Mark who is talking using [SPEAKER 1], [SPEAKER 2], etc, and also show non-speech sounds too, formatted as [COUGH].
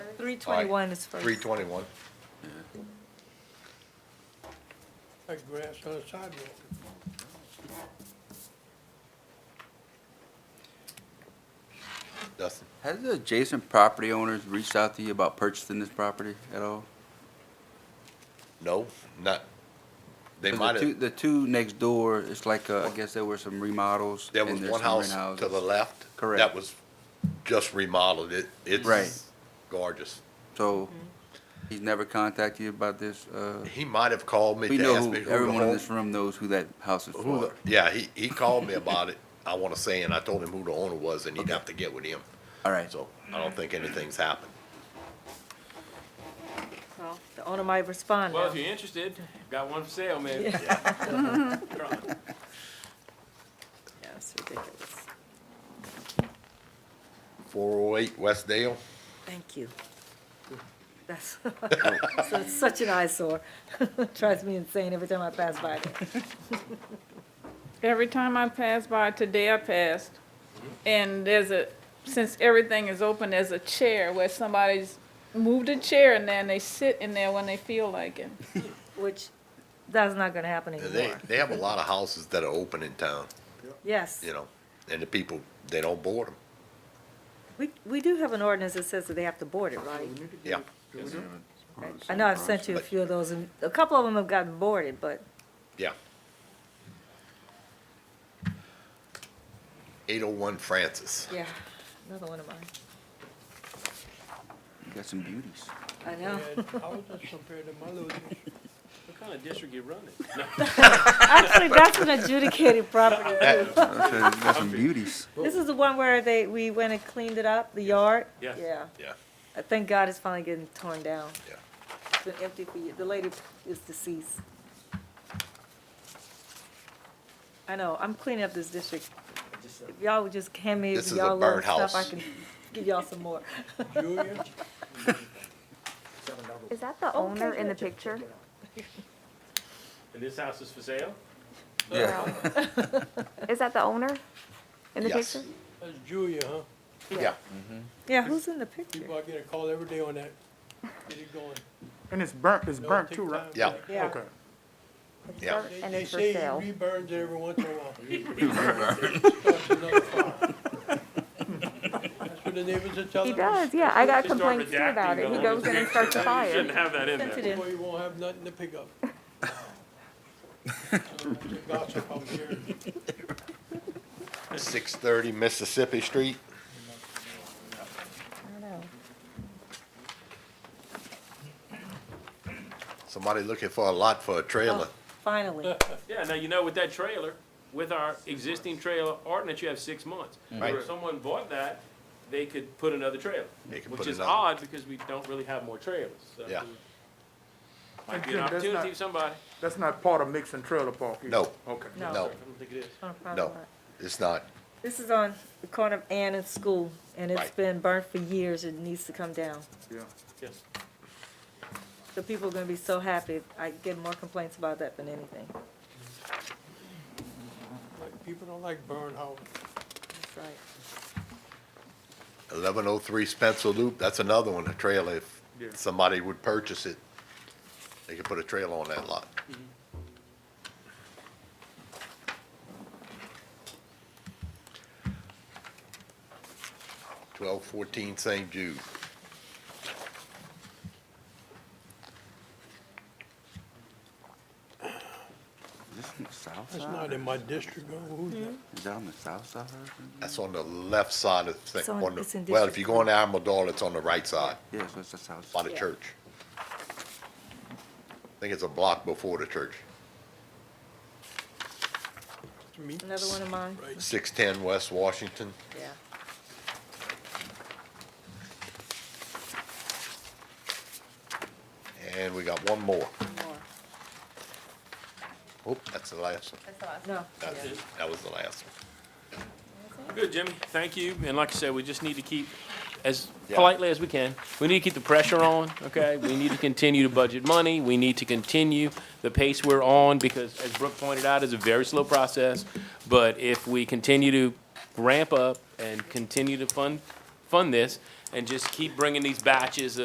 [SPEAKER 1] Three twenty-one is first.
[SPEAKER 2] Three twenty-one.
[SPEAKER 3] like grass on the sidewalk.
[SPEAKER 2] Dustin,
[SPEAKER 4] Has the adjacent property owners reached out to you about purchasing this property at all?
[SPEAKER 2] no, not, they
[SPEAKER 4] 'Cause
[SPEAKER 2] might
[SPEAKER 4] the two-
[SPEAKER 2] have,
[SPEAKER 4] The two next door, it's like, uh, I guess there were some remodels.
[SPEAKER 2] there
[SPEAKER 4] and
[SPEAKER 2] was
[SPEAKER 4] there's
[SPEAKER 2] one
[SPEAKER 4] some
[SPEAKER 2] house
[SPEAKER 4] rent
[SPEAKER 2] to the
[SPEAKER 4] houses.
[SPEAKER 2] left.
[SPEAKER 4] Correct.
[SPEAKER 2] That was just remodeled, it,
[SPEAKER 4] Right.
[SPEAKER 2] it's gorgeous.
[SPEAKER 4] So
[SPEAKER 1] Mm-hmm.
[SPEAKER 4] he's never contacted you about this? uh,
[SPEAKER 2] He might have called me
[SPEAKER 4] We
[SPEAKER 2] to
[SPEAKER 4] know,
[SPEAKER 2] ask
[SPEAKER 4] who-
[SPEAKER 2] me who the
[SPEAKER 4] everyone in
[SPEAKER 2] home.
[SPEAKER 4] this room knows who that house is
[SPEAKER 2] who
[SPEAKER 4] for.
[SPEAKER 2] the- Yeah, he,
[SPEAKER 4] [LAUGHS]
[SPEAKER 2] he called me about it, I wanna say, and I told him who the owner was, and he'd have to get with him.
[SPEAKER 4] All right,
[SPEAKER 2] So I don't think anything's happened.
[SPEAKER 1] Well, the owner might respond
[SPEAKER 5] Well,
[SPEAKER 1] now.
[SPEAKER 5] if you're interested, got one for sale, maybe.
[SPEAKER 1] Yeah.
[SPEAKER 2] [LAUGHS]
[SPEAKER 5] You're on.
[SPEAKER 1] Yeah, it's ridiculous.
[SPEAKER 2] Four oh eight West Dale,
[SPEAKER 1] Thank you. That's, [LAUGHS] so it's such an eyesore. [LAUGHS] Drives me insane every time I pass by there.
[SPEAKER 6] Every time I pass by, today I passed, and there's a, since everything is open, there's a chair where somebody's moved a chair in there and they sit in there when they feel like it.
[SPEAKER 1] Which, that's not gonna happen
[SPEAKER 2] they,
[SPEAKER 1] anymore.
[SPEAKER 2] they have a lot of houses that are open in town,
[SPEAKER 1] Yes.
[SPEAKER 2] you know, and the people, they don't board them,
[SPEAKER 1] We, we do have an ordinance that says that they have to board it, right?
[SPEAKER 2] yeah.
[SPEAKER 1] I know I've sent you a few of those, and a couple of them have gotten boarded, but
[SPEAKER 2] Yeah. Eight oh one Francis.
[SPEAKER 1] yeah, another one of mine.
[SPEAKER 4] you got some beauties.
[SPEAKER 1] I
[SPEAKER 5] [LAUGHS]
[SPEAKER 1] know.
[SPEAKER 3] And how does this compare to my losers?
[SPEAKER 5] What kind of district you running? No,
[SPEAKER 1] Actually, that's an adjudicated property.
[SPEAKER 2] [LAUGHS] That-
[SPEAKER 4] I said, you got some beauties.
[SPEAKER 1] This is the one where they, we went and cleaned it up, the yard?
[SPEAKER 5] Yes.
[SPEAKER 1] Yeah.
[SPEAKER 2] Yeah.
[SPEAKER 1] I Thank God it's finally getting torn down.
[SPEAKER 2] Yeah.
[SPEAKER 1] It's been empty for years. The lady is deceased. I know, I'm cleaning up this district. If y'all would just hand me
[SPEAKER 2] This is a
[SPEAKER 1] y'all little
[SPEAKER 2] burnt
[SPEAKER 1] stuff, I
[SPEAKER 2] house.
[SPEAKER 1] can give y'all some more.
[SPEAKER 3] Julia,
[SPEAKER 7] Is that the owner in the picture?
[SPEAKER 5] and this house is for sale?
[SPEAKER 7] [LAUGHS]
[SPEAKER 4] Yeah.
[SPEAKER 7] Is that the owner in the
[SPEAKER 2] Yes.
[SPEAKER 7] picture?
[SPEAKER 3] that's Julia, huh?
[SPEAKER 2] Yeah,
[SPEAKER 1] Yeah, who's in the picture?
[SPEAKER 3] People, I get a call every day on that. Get it going.
[SPEAKER 8] And it's burnt, it's
[SPEAKER 3] No,
[SPEAKER 8] burnt
[SPEAKER 3] take
[SPEAKER 8] too, right?
[SPEAKER 3] time.
[SPEAKER 2] yeah,
[SPEAKER 1] Yeah.
[SPEAKER 8] Okay.
[SPEAKER 2] yeah.
[SPEAKER 3] They-
[SPEAKER 7] And
[SPEAKER 3] they
[SPEAKER 7] it's for
[SPEAKER 3] say
[SPEAKER 7] sale.
[SPEAKER 3] he reburns it every once in a while. Starts another fire. That's what the neighbors are telling
[SPEAKER 7] He
[SPEAKER 3] us.
[SPEAKER 7] does, yeah. I got
[SPEAKER 5] Just start
[SPEAKER 7] complaints too about
[SPEAKER 5] redacting
[SPEAKER 7] it. He
[SPEAKER 5] the
[SPEAKER 7] goes in and starts a
[SPEAKER 5] You
[SPEAKER 7] fire.
[SPEAKER 5] shouldn't have that in
[SPEAKER 1] Sent it
[SPEAKER 5] there.
[SPEAKER 1] in.
[SPEAKER 3] Boy, you won't have nothing to pick up. So, that's the Gossip out here.
[SPEAKER 2] Six thirty Mississippi Street. Somebody looking for a lot for a trailer.
[SPEAKER 1] Oh. Finally.
[SPEAKER 5] Yeah, now you know with that trailer, with our existing trailer ordinance, you have six months.
[SPEAKER 2] Mm-hmm. Right.
[SPEAKER 5] If someone bought that, they could put another trailer.
[SPEAKER 2] They could
[SPEAKER 5] Which
[SPEAKER 2] put
[SPEAKER 5] is
[SPEAKER 2] another-
[SPEAKER 5] odd because we don't really have more trailers. so
[SPEAKER 2] Yeah.
[SPEAKER 5] Might be an
[SPEAKER 8] That's not-
[SPEAKER 5] opportunity for somebody.
[SPEAKER 8] That's not part of mixing trailer park either?
[SPEAKER 2] No.
[SPEAKER 8] Okay.
[SPEAKER 1] No.
[SPEAKER 2] No,
[SPEAKER 5] I don't think it is.
[SPEAKER 1] on a private
[SPEAKER 2] no,
[SPEAKER 1] lot.
[SPEAKER 2] it's not.
[SPEAKER 1] This is on the corner of Ann and School, and it's
[SPEAKER 2] Right.
[SPEAKER 1] been burnt for years. It needs to come down.
[SPEAKER 8] Yeah.
[SPEAKER 5] Yes.
[SPEAKER 1] The people are gonna be so happy. I get more complaints about that than anything.
[SPEAKER 3] Like, People don't like burn houses.
[SPEAKER 1] That's right.
[SPEAKER 2] Eleven oh three Spencer Loop, that's another one, a trailer. If
[SPEAKER 8] Yeah.
[SPEAKER 2] somebody would purchase it, they could put a trailer on that lot. Twelve fourteen St. Jude.
[SPEAKER 4] Is this on the south
[SPEAKER 3] That's
[SPEAKER 4] side?
[SPEAKER 3] not in my district, oh, who's that?
[SPEAKER 4] Is that on the south side? or something?
[SPEAKER 2] That's on the left side of the
[SPEAKER 1] It's
[SPEAKER 2] thing.
[SPEAKER 1] on-
[SPEAKER 2] on the-
[SPEAKER 1] it's in
[SPEAKER 2] Well,
[SPEAKER 1] District
[SPEAKER 2] if you go on Amador, it's on the right side
[SPEAKER 4] Yeah, so it's the south
[SPEAKER 2] by
[SPEAKER 4] side.
[SPEAKER 2] the church. I think it's a block before the church.
[SPEAKER 3] It's me.
[SPEAKER 1] Another one of mine?
[SPEAKER 3] Right.
[SPEAKER 2] Six ten West Washington.
[SPEAKER 1] Yeah.
[SPEAKER 2] And we got one more.
[SPEAKER 1] more.
[SPEAKER 2] Oop, that's the last one.
[SPEAKER 1] No.
[SPEAKER 2] That's it. That was the last one.
[SPEAKER 5] Good, Jimmy. Thank you. And like I said, we just need to keep, as
[SPEAKER 2] Yeah.
[SPEAKER 5] politely as we can, we need to keep the pressure on, okay? We need to continue to budget money. We need to continue the pace we're on because, as Brooke pointed out, it's a very slow process. But if we continue to ramp up and continue to fund, fund this and just keep bringing these batches